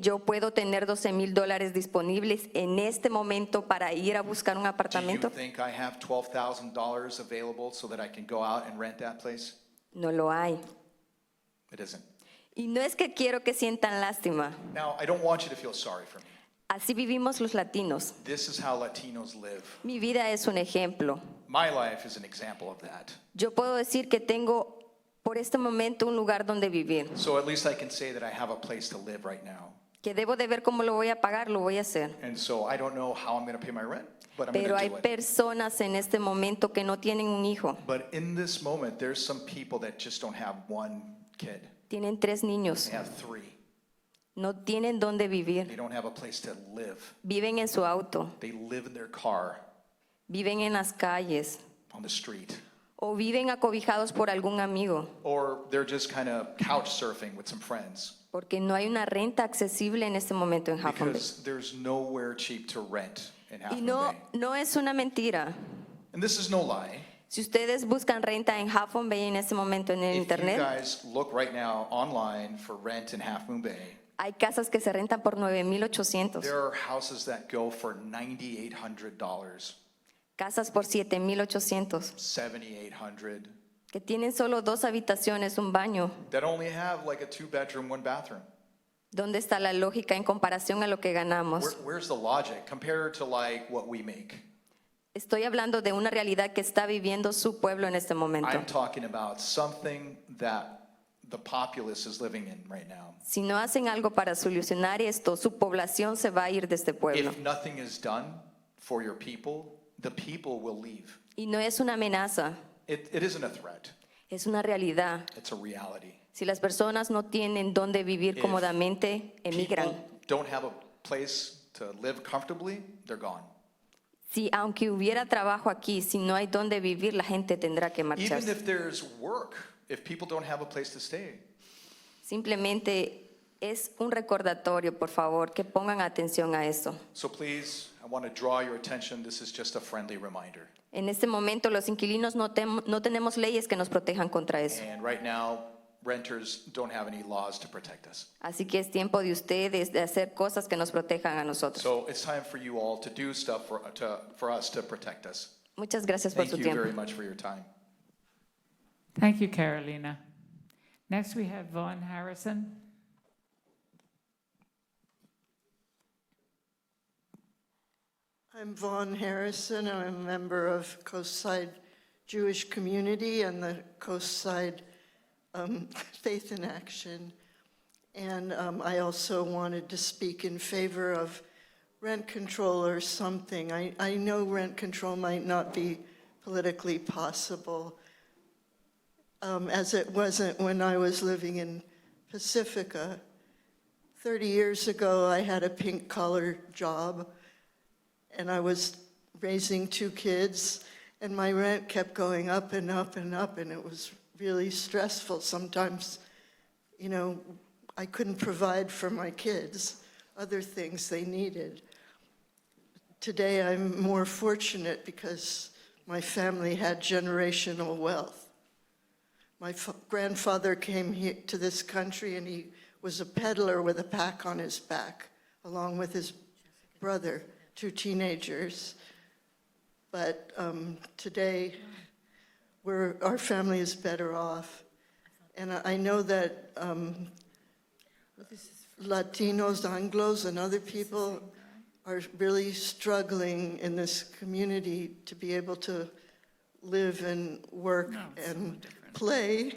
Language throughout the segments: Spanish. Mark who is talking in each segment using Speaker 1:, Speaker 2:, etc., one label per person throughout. Speaker 1: Yo puedo tener 12 mil dólares disponibles en este momento para ir a buscar un
Speaker 2: Do you
Speaker 1: apartamento.
Speaker 2: think I have $12,000 available so that I can go out and rent that place?
Speaker 1: No lo hay.
Speaker 2: It isn't.
Speaker 1: Y no es que quiero que sientan lástima.
Speaker 2: Now, I don't want you to feel sorry for me.
Speaker 1: Así vivimos los latinos.
Speaker 2: This is how Latinos live.
Speaker 1: Mi vida es un ejemplo.
Speaker 2: My life is an example of that.
Speaker 1: Yo puedo decir que tengo por este momento un lugar donde vivir.
Speaker 2: So at least I can say that I have a place to live right now.
Speaker 1: Que debo de ver cómo lo voy a pagar, lo voy a hacer.
Speaker 2: And so I don't know how I'm going to pay my rent, but I'm
Speaker 1: Pero hay
Speaker 2: going to do it.
Speaker 1: personas en este momento que no tienen un hijo.
Speaker 2: But in this moment, there's some people that just don't have one kid.
Speaker 1: Tienen tres niños.
Speaker 2: They have three.
Speaker 1: No tienen dónde
Speaker 2: They
Speaker 1: vivir.
Speaker 2: don't have a place to live.
Speaker 1: Viven en su auto.
Speaker 2: They live in their car
Speaker 1: Viven en las calles.
Speaker 2: on the street.
Speaker 1: o viven acobijados por algún amigo,
Speaker 2: Or they're just kind of couch surfing with some friends.
Speaker 1: porque no hay una renta accesible en este momento en Half Moon Bay.
Speaker 2: Because there's nowhere cheap to rent in Half
Speaker 1: Y
Speaker 2: Moon
Speaker 1: no,
Speaker 2: Bay.
Speaker 1: no es una mentira.
Speaker 2: And this is no lie.
Speaker 1: Si ustedes buscan renta en Half Moon Bay en este momento en el
Speaker 2: If you
Speaker 1: internet,
Speaker 2: guys look right now online for rent in Half Moon Bay,
Speaker 1: hay casas que se rentan por 9.800,
Speaker 2: there are houses that go for $9,800,
Speaker 1: casas por 7.800,
Speaker 2: $7,800,
Speaker 1: que tienen solo dos habitaciones, un baño.
Speaker 2: that only have like a two-bedroom, one-bathroom.
Speaker 1: ¿Dónde está la lógica en comparación a lo que
Speaker 2: Where,
Speaker 1: ganamos?
Speaker 2: where's the logic compared to like what we make?
Speaker 1: Estoy hablando de una realidad que está viviendo su pueblo en este momento.
Speaker 2: I'm talking about something that the populace is living in right now.
Speaker 1: Si no hacen algo para solucionar esto, su población se va a ir de este pueblo.
Speaker 2: If nothing is done for your people, the people will leave.
Speaker 1: Y no es una amenaza,
Speaker 2: It, it isn't a threat,
Speaker 1: es una realidad.
Speaker 2: it's a reality.
Speaker 1: Si las personas no tienen dónde vivir
Speaker 2: If
Speaker 1: cómodamente, emigran.
Speaker 2: People don't have a place to live comfortably, they're gone.
Speaker 1: Si aunque hubiera trabajo aquí, si no hay dónde vivir, la gente tendrá que
Speaker 2: Even
Speaker 1: marcharse.
Speaker 2: if there's work, if people don't have a place to stay,
Speaker 1: Simplemente es un recordatorio, por favor, que pongan atención a esto.
Speaker 2: so please, I want to draw your attention. This is just a friendly reminder.
Speaker 1: En este momento los inquilinos no, tem- no tenemos leyes que nos protejan contra eso.
Speaker 2: And right now, renters don't have any laws to protect us.
Speaker 1: Así que es tiempo de ustedes de hacer cosas que nos protejan a nosotros.
Speaker 2: So it's time for you all to do stuff for, to, for us to protect us.
Speaker 1: Muchas gracias por
Speaker 2: Thank
Speaker 1: su
Speaker 2: you
Speaker 1: tiempo.
Speaker 2: very much for your time.
Speaker 3: Thank you, Carolina. Next, we have Vaughn Harrison.
Speaker 4: I'm Vaughn Harrison. I'm a member of Coast Side Jewish Community and the Coast Side um, Faith in Action. And um, I also wanted to speak in favor of rent control or something. I, I know rent control might not be politically possible, um, as it wasn't when I was living in Pacifica. 30 years ago, I had a pink collar job and I was raising two kids, and my rent kept going up and up and up, and it was really stressful. Sometimes, you know, I couldn't provide for my kids other things they needed. Today, I'm more fortunate because my family had generational wealth. My fa- grandfather came here to this country and he was a peddler with a pack on his back, along with his brother, two teenagers. But um, today, we're, our family is better off. And I I know that um, Latinos, Anglos, and other people are really struggling in this community to be able to live and work and play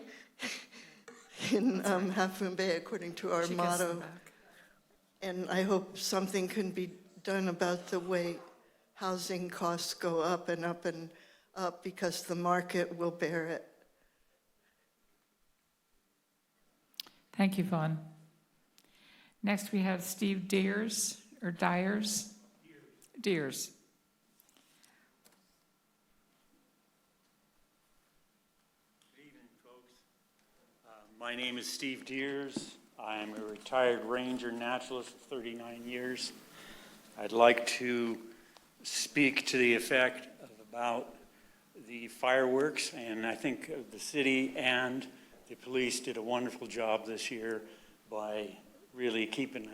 Speaker 4: in um, Half Moon Bay according to our motto. And I hope something can be done about the way housing costs go up and up and up because the market will bear it.
Speaker 3: Thank you, Vaughn. Next, we have Steve Deers, or Dyers? Deers.
Speaker 5: Good evening, folks. Uh, My name is Steve Deers. I'm a retired ranger naturalist for 39 years. I'd like to speak to the effect of about the fireworks, and I think uh, the city and the police did a wonderful job this year by really keeping